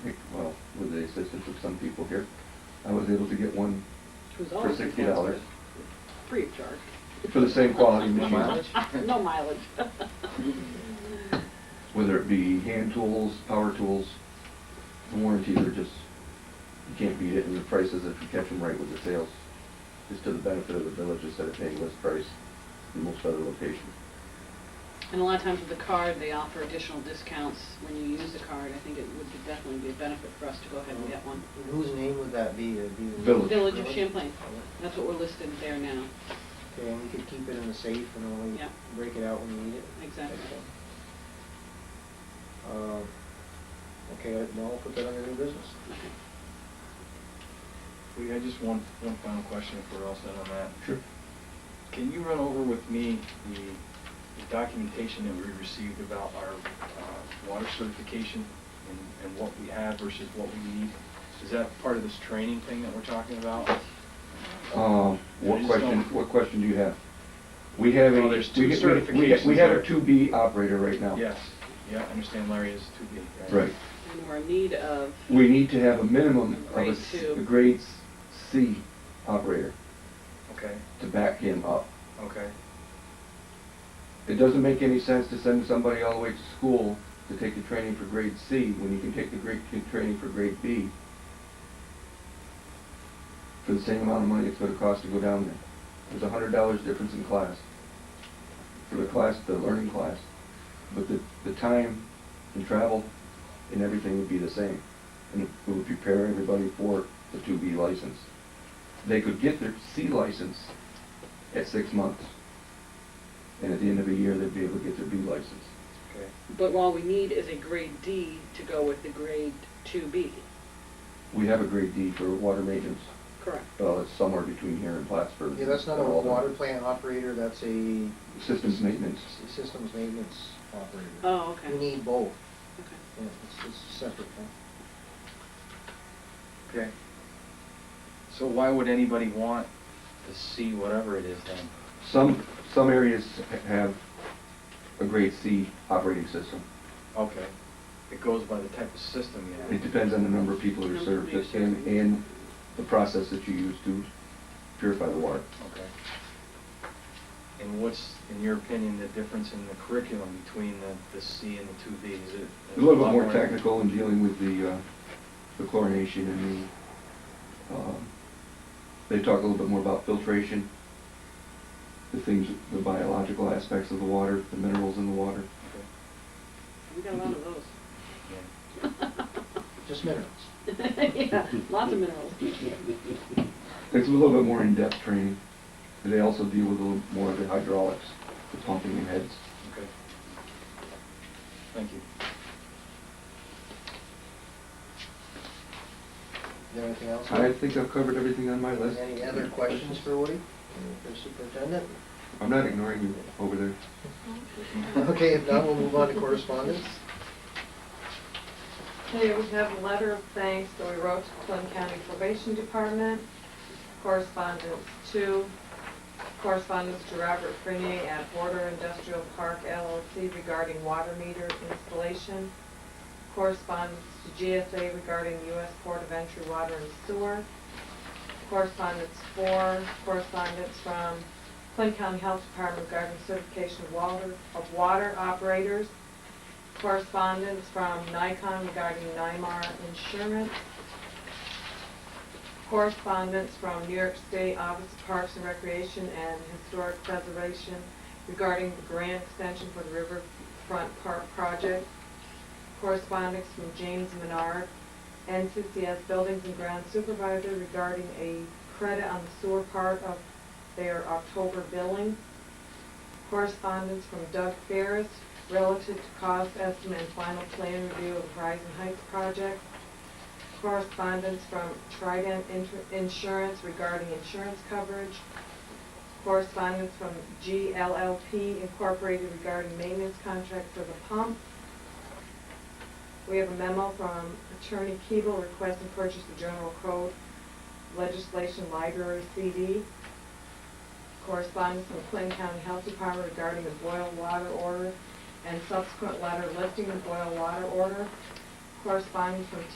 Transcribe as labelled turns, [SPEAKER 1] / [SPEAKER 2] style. [SPEAKER 1] the assistance of some people here, I was able to get one
[SPEAKER 2] Who's
[SPEAKER 1] for
[SPEAKER 2] always
[SPEAKER 1] sixty dollars
[SPEAKER 2] Free of charge.
[SPEAKER 1] for the same quality machine,
[SPEAKER 2] No mileage.
[SPEAKER 1] whether it be hand tools, power tools, the warranties are just, you can't beat it, and the prices, if you catch them right with the sales, is to the benefit of the village instead of paying list price in most other locations.
[SPEAKER 2] And a lot of times with the card, they offer additional discounts when you use the card. I think it would be- definitely be a benefit for us to go ahead and get one.
[SPEAKER 3] And Whose name would that be? It'd be the-
[SPEAKER 1] Village.
[SPEAKER 2] Village of Champlain, that's what we're listed there now.
[SPEAKER 3] Okay, and we could keep it in the safe and only
[SPEAKER 2] Yeah.
[SPEAKER 3] break it out when we need it?
[SPEAKER 2] Exactly.
[SPEAKER 3] Okay. Um, Okay, uh, no, I'll put that under new business.
[SPEAKER 4] We, I just one, one final question if we're all set on that.
[SPEAKER 1] Sure.
[SPEAKER 4] Can you run over with me the the documentation that we received about our uh, water certification and, and what we have versus what we need? Is that part of this training thing that we're talking about?
[SPEAKER 1] Um, what
[SPEAKER 4] I just
[SPEAKER 1] question,
[SPEAKER 4] don't-
[SPEAKER 1] what question do you have? We have a.
[SPEAKER 4] Well, there's two
[SPEAKER 1] we- we-
[SPEAKER 4] certifications
[SPEAKER 1] We have a
[SPEAKER 4] there.
[SPEAKER 1] two B operator right now.
[SPEAKER 4] Yes, yeah, I understand Larry is to be.
[SPEAKER 1] Right.
[SPEAKER 2] And we're in need of,
[SPEAKER 1] We need to have a minimum of a,
[SPEAKER 2] Grade
[SPEAKER 1] s-
[SPEAKER 2] two.
[SPEAKER 1] a grade s- C operator
[SPEAKER 4] Okay,
[SPEAKER 1] to back him up.
[SPEAKER 4] okay.
[SPEAKER 1] It doesn't make any sense to send somebody all the way to school to take the training for grade C when you can take the grade, the training for grade B for the same amount of money it's gonna cost to go down there. There's a hundred dollars difference in class, for the class, the learning class, but the, the time and travel and everything would be the same. And it would prepare everybody for the two B license. They could get their C license at six months. And at the end of a year, they'd be able to get their B license.
[SPEAKER 4] Okay.
[SPEAKER 2] but all we need is a grade D to go with the grade 2B.
[SPEAKER 1] We have a grade D for water maintenance,
[SPEAKER 2] Correct.
[SPEAKER 1] well, it's somewhere between here and Plattsburgh.
[SPEAKER 3] Yeah, that's not a
[SPEAKER 1] They're all done.
[SPEAKER 3] water plant operator, that's a
[SPEAKER 1] Systems maintenance.
[SPEAKER 3] s- systems maintenance operator.
[SPEAKER 2] Oh, okay.
[SPEAKER 3] We need both.
[SPEAKER 2] Okay.
[SPEAKER 3] Yeah, it's, it's a separate thing.
[SPEAKER 4] Okay. So why would anybody want to see whatever it is then?
[SPEAKER 1] Some, some areas have a grade C operating system.
[SPEAKER 4] Okay. It goes by the type of system you have.
[SPEAKER 1] It depends on the number of people that are
[SPEAKER 2] Number
[SPEAKER 1] served
[SPEAKER 2] of users.
[SPEAKER 1] and, and the process that you use to purify the water.
[SPEAKER 4] Okay. And what's, in your opinion, the difference in the curriculum between the, the C and the two B? Is it?
[SPEAKER 1] A little bit more technical in dealing with the, uh, the chlorination and the, um, they talk a little bit more about filtration, the things, the biological aspects of the water, the minerals in the water.
[SPEAKER 4] Okay.
[SPEAKER 2] We got a lot of those.
[SPEAKER 4] Yeah.
[SPEAKER 3] Just minerals.
[SPEAKER 2] Yeah, lots of minerals.
[SPEAKER 1] It's a little bit more in-depth training. They also deal with a little more of the hydraulics, the pumping and heads.
[SPEAKER 4] Okay. Thank you.
[SPEAKER 3] Is there anything else?
[SPEAKER 1] I think I've covered everything on my list.
[SPEAKER 3] Any other questions for Woody, for superintendent?
[SPEAKER 1] I'm not ignoring you over there.
[SPEAKER 3] Okay, if not, we'll move on to correspondence.
[SPEAKER 5] Okay, we have a letter of thanks that we wrote to Clinton County Probation Department, correspondence to, correspondence to Robert Frenier at Border Industrial Park LLC regarding water meter installation, correspondence to GSA regarding U.S. Port of Entry Water and Sewer, correspondence for, correspondence from Clinton County Health Department regarding certification of water, of water operators, correspondence from Nikon regarding NYMAR insurance, correspondence from New York State Office of Parks and Recreation and Historic Preservation regarding the grant extension for the Riverfront Park project, correspondence from James Menard, NCCS Buildings and Ground Supervisor regarding a credit on the sewer part of their October billing, correspondence from Doug Ferris relative to cost estimate and final plan review of Horizon Heights project. Correspondence from Trident Inter- Insurance regarding insurance coverage. Correspondence from GLLP Incorporated regarding maintenance contract for the pump. We have a memo from Attorney Keeble requesting purchase of General Code Legislation Library CD correspondence from Clinton County Health Department regarding the boil water order and subsequent letter lifting the boil water order, correspondence from